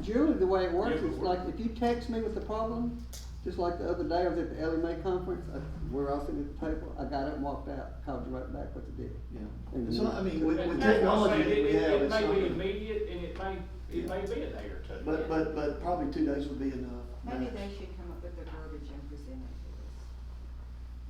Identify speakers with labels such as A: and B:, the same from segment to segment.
A: Generally, the way it works
B: Yeah,
A: is
B: but we're-
A: like, if you text me with the problem, just like the other day, I was at the Ellie Mae conference, I, we're all sitting at the table, I got up and walked out, called you right back with the deal.
C: Yeah.
A: And
C: And so, I mean, with, with
B: That's what I'm
C: technology
B: saying.
C: that we
B: It- it-
C: have,
B: It
C: it's not.
B: may be immediate and it may, it may be a day or two.
C: But, but, but probably two days would be enough.
D: Maybe
C: max.
D: they should come up with the verbiage and present it to us.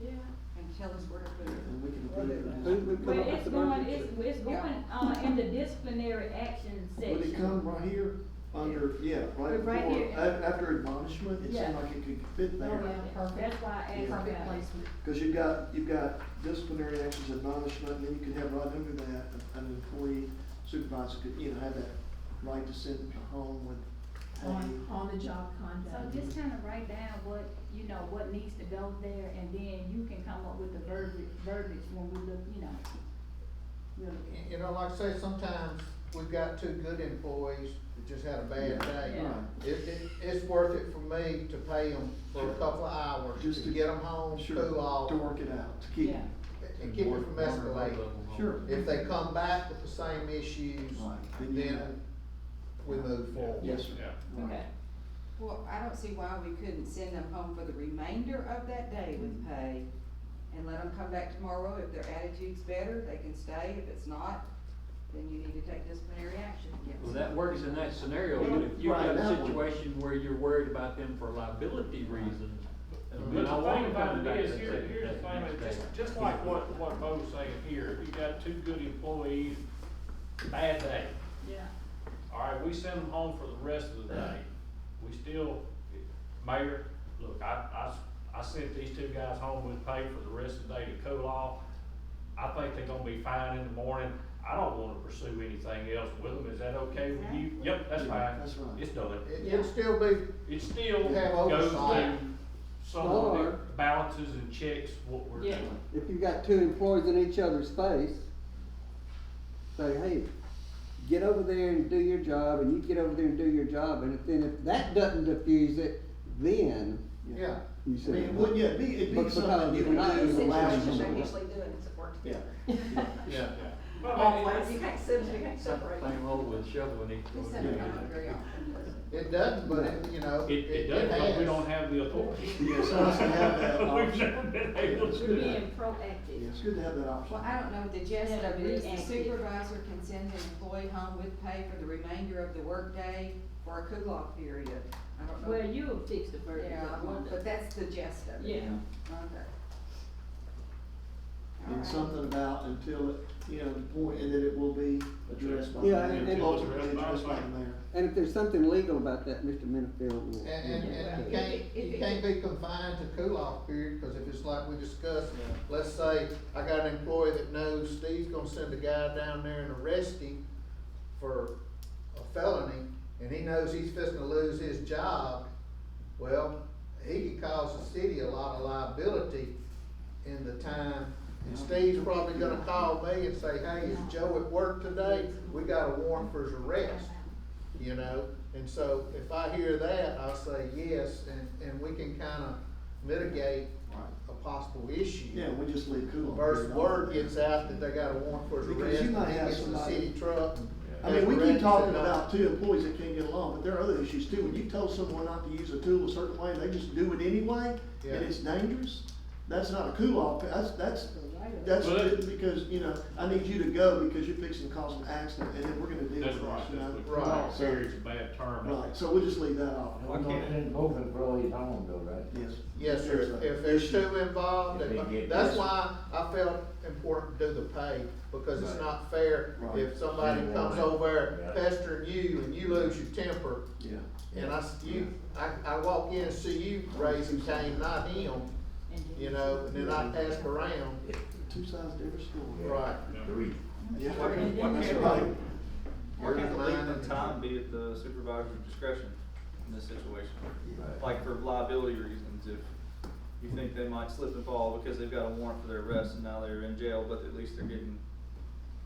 D: Yeah. And tell us where to put it.
C: And we can approve it.
A: Who- who
E: But
A: come up with
E: it's
A: the
E: going,
A: verbiage?
E: it's, it's going, uh, in the disciplinary action section.
C: Would it come right here under, yeah, right
E: Right
C: before,
E: here.
C: a- after admonishment, it seemed
E: Yeah.
C: like it could fit there.
E: Yeah, That's why I asked about
C: Perfect
E: it.
C: Cause you've got, you've got disciplinary actions, admonishment, and then you could have right under that, an employee supervisor could, you know, have that right to send them home with
F: on,
C: pay.
F: on the job
E: So
F: conduct.
E: just kind of write down what, you know, what needs to go there, and then you can come up with the verbiage, verbiage when we look, you know. we'll look at it.
G: You know, like I say, sometimes we've got two good employees that just had a bad day.
E: Yeah.
G: It, it, it's worth it for me to pay them for a couple of hours,
C: Just
G: just to
C: to-
G: get them home,
C: Sure,
G: cool off,
C: to work it out, to keep.
E: Yeah.
G: and keep it from escalating.
C: Sure.
G: If they come back with the same issues,
C: Right, then you
G: then we move forward.
C: Yes, sir.
B: Yeah.
C: Right.
E: Okay.
D: Well, I don't see why we couldn't send them home for the remainder of that day with pay and let them come back tomorrow. If their attitude's better, they can stay. If it's not, then you need to take disciplinary action against
H: Well,
D: them.
H: that works in that scenario,
C: Yeah,
H: but if you've got
C: right,
H: a
C: that one.
H: situation where you're worried about them for liability reasons.
B: But
H: then
B: the
H: I want
B: thing
H: them
B: about
H: back
B: it is,
H: that
B: here,
H: second-
B: here's the
H: that
B: thing,
H: next
B: is
H: day.
B: just, just like what, what Bo's saying here, if you got two good employees, bad day.
E: Yeah.
B: All right, we send them home for the rest of the day. We still, Mayor, look, I, I, I sent these two guys home with pay for the rest of the day to cool off. I think they're gonna be fine in the morning. I don't wanna pursue anything else with them. Is that okay with you? Yep, that's
C: Yeah,
B: fine.
C: that's right.
B: It's done.
G: It, it'd still be
B: It still
G: Have
B: goes
G: oversight.
B: through someone
A: Or-
B: that balances and checks what we're
E: Yeah.
B: doing.
A: If you've got two employees in each other's face, say, hey, get over there and do your job, and you get over there and do your job, and if then if that doesn't diffuse it, then
G: Yeah,
A: you
C: I
A: say.
C: mean, it would, yeah, it'd be, it'd be
A: But
C: something
A: because
C: you would
A: we're
C: do
A: not
C: is
A: in
C: allow
A: situations
C: someone.
D: doing is work
C: Yeah.
G: yeah.
B: Well, I mean,
D: you can't send, you can't
H: Same thing old with shoveling it.
D: We send them home very often.
G: It doesn't, but it, you know,
B: It, it does, but we don't have the authority.
C: Yeah, so it's to have that
B: We've
C: option.
B: never been able to
E: We're
B: do that.
E: being
C: Yeah,
E: proactive.
C: it's good to have that option.
D: Well, I don't know, what the gist
E: Yeah,
D: of it is the
E: reactive.
D: supervisor can send an employee home with pay for the remainder of the workday for a cool-off period. I don't know.
E: Well, you'll fix the verbiage.
D: Yeah,
E: I wonder.
D: but that's the gist of it.
E: Yeah.
D: Okay. All
C: And
D: right.
C: something about until, it you know, the point, and that it will be addressed by the
A: Yeah, and-
C: mayor,
A: and-
C: ultimately addressed by the mayor.
A: And if there's something legal about that, Mr. Minifield will.
G: And, and, and you can't, you can't be confined to cool-off period, because if it's like we discussed, let's say, I got an employee that knows Steve's gonna send a guy down there and arrest him for a felony, and he knows he's fixing to lose his job, well, he could cause the city a lot of liability in the time. And Steve's probably gonna call me and say, hey, is Joe at work today? We got a warrant for his arrest you know? And so if I hear that, I say yes, and, and we can kinda mitigate a possible issue.
C: Yeah, we just leave cool.
G: Versus word gets out that they got a warrant for his
C: Because
G: arrest,
C: you might
G: and he
C: have
G: gets in the
C: somebody-
G: city truck.
C: I mean, we keep talking about two employees that can't get along, but there are other issues too. When you tell someone not to use a tool a certain way, and they just do it anyway,
G: Yeah.
C: and it's dangerous, that's not a cool off, that's, that's, that's
B: Well, that-
C: because, you know, I need you to go because you're fixing to cause an accident, and then we're gonna deal with
B: That's
C: this,
B: right,
C: you know?
B: that's
G: Right.
B: what, serious bad term.
C: Right, so we'll just leave that off.
I: Why can't it involve employees home though, right?
C: Yes.
G: Yes, sir,
C: There's a-
G: if there's two involved,
I: If they get
G: that's
I: this-
G: why I felt important to do the pay, because it's
I: Right.
G: not fair
C: Right.
G: if somebody
I: Yeah.
G: comes over
I: Yeah.
G: pestering you and you lose your temper,
C: Yeah.
G: and I, s- you, I, I walk in and see you raising Cain, not him,
E: And then-
G: you know, and then I ask around,
C: Two sides to every story.
G: right.
I: Three.
C: Yeah.
E: Why can't- why
C: That's
E: can't-
C: right.
J: Where can the length of time be at the supervisor's discretion in this situation?
I: Right.
J: Like for liability reasons, if you think they might slip and fall because they've got a warrant for their arrest and now they're in jail, but at least they're getting,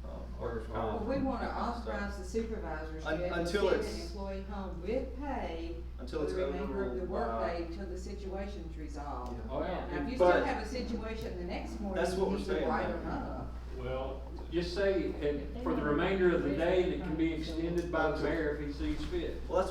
J: um, workers'
D: Well,
J: comp.
D: we wanna
J: So,
D: authorize the supervisors to
J: Un-
D: be able to
J: until
D: send an
J: it's-
D: employee home with pay
J: Until
D: for
J: it's
D: the remainder of the
J: overruled by-
D: workday until the situation's resolved.
C: Yeah.
H: Oh, yeah.
D: Now, if you still
J: uh, But-
D: have a situation the next morning,
J: That's what
D: you
J: we're
D: need to
J: saying,
D: write
J: yeah.
D: them up.
B: Well,
H: Just say, and for the remainder of the day, and it can be extended by the mayor if he sees fit.
J: Well, that's